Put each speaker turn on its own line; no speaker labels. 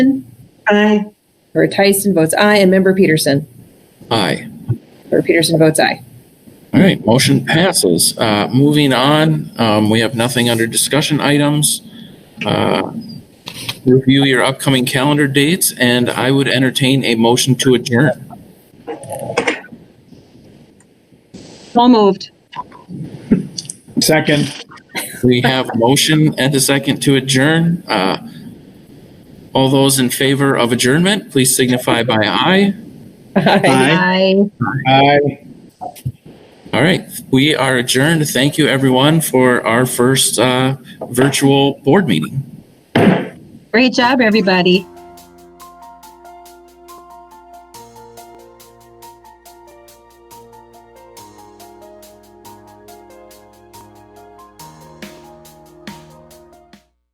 Aye.
Member Tyson votes aye, and Member Peterson.
Aye.
Member Peterson votes aye.
All right, motion passes. Uh, Moving on, um, we have nothing under discussion items. Uh, Review your upcoming calendar dates, and I would entertain a motion to adjourn.
So moved.
Second.
We have a motion and a second to adjourn. Uh, All those in favor of adjournment, please signify by aye.
Aye.
Aye.
All right, we are adjourned. Thank you, everyone, for our first uh, virtual board meeting.
Great job, everybody.